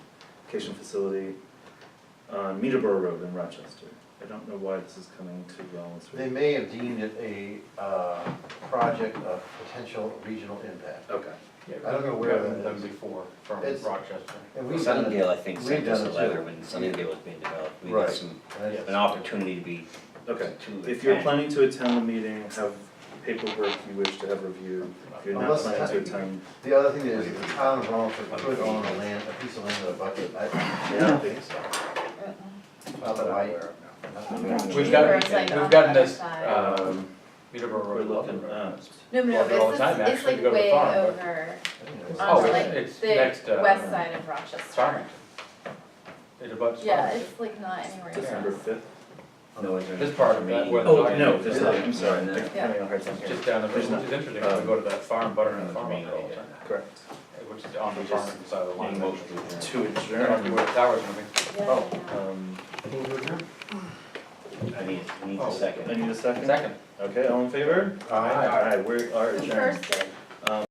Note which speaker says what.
Speaker 1: Education Facility on Meterboro Road in Rochester. I don't know why this is coming to Rollins
Speaker 2: They
Speaker 1: Street.
Speaker 2: may have deemed it a uh, project of potential regional impact.
Speaker 1: Okay,
Speaker 2: I don't know where
Speaker 3: Rather
Speaker 2: that
Speaker 3: than
Speaker 2: is.
Speaker 3: before from
Speaker 2: It's-
Speaker 3: Rochester.
Speaker 2: And we've done it-
Speaker 4: Sunningdale, I think,
Speaker 2: we've
Speaker 4: sent us
Speaker 2: done
Speaker 4: a
Speaker 2: it
Speaker 4: letter
Speaker 2: too.
Speaker 4: when Sunningdale was being developed. We
Speaker 2: Right.
Speaker 4: got some,
Speaker 2: And
Speaker 3: Yeah.
Speaker 2: it's-
Speaker 4: an opportunity to be,
Speaker 1: okay.
Speaker 4: to.
Speaker 1: If you're
Speaker 4: attend.
Speaker 1: planning to attend the meeting, have paperwork you wish to have reviewed. If you're not
Speaker 2: Unless-
Speaker 1: planning to attend,
Speaker 2: The other thing is, the town of Rollinsford put on a land, a piece of land with a bucket, I I don't think so. Not that I, not that I-
Speaker 3: We've
Speaker 5: gotten-
Speaker 3: gotten,
Speaker 5: Cheaper, it's like on
Speaker 3: we've
Speaker 5: the
Speaker 3: gotten
Speaker 5: other
Speaker 3: this,
Speaker 5: side.
Speaker 3: um,
Speaker 1: we're
Speaker 3: Peterborough Road,
Speaker 1: looking
Speaker 3: Loveland Road.
Speaker 1: at,
Speaker 3: Well,
Speaker 5: No, no,
Speaker 3: they're all
Speaker 5: but
Speaker 3: the time,
Speaker 5: it's, it's
Speaker 3: actually,
Speaker 5: like
Speaker 3: to go to the
Speaker 5: way
Speaker 3: farm, but-
Speaker 5: over
Speaker 2: I don't know.
Speaker 3: Oh,
Speaker 5: on
Speaker 3: it's-
Speaker 5: like
Speaker 3: it's next,
Speaker 5: the
Speaker 3: uh,
Speaker 5: west side of Rochester.
Speaker 3: Farmington. It abuts
Speaker 5: Yeah,
Speaker 3: Farmington.
Speaker 5: it's like not anywhere.
Speaker 1: December fifth.
Speaker 4: No, it's-
Speaker 3: Oh, This part of that, where the
Speaker 1: Oh,
Speaker 3: dog
Speaker 1: no,
Speaker 3: is,
Speaker 1: there's
Speaker 3: is
Speaker 1: not, I'm sorry.
Speaker 4: No, no,
Speaker 5: Yeah.
Speaker 4: no, I heard something.
Speaker 3: Just down the road,
Speaker 1: There's
Speaker 3: which
Speaker 1: not-
Speaker 3: is interesting, 'cause we go to that farm, butternut farm road all the time,
Speaker 1: Correct.
Speaker 3: which is on the Farmington side of the line.
Speaker 1: To
Speaker 3: I don't know
Speaker 1: adjourn.
Speaker 3: where the tower's moving.
Speaker 5: Yeah,
Speaker 1: Oh,
Speaker 5: yeah.
Speaker 1: um,
Speaker 4: I need, I need
Speaker 3: Oh.
Speaker 4: a
Speaker 1: I
Speaker 4: second.
Speaker 1: need a second.
Speaker 3: Second.
Speaker 1: Okay, all in favor?
Speaker 2: Aye.
Speaker 1: Alright, we are
Speaker 5: The
Speaker 1: adjourned.
Speaker 5: first is.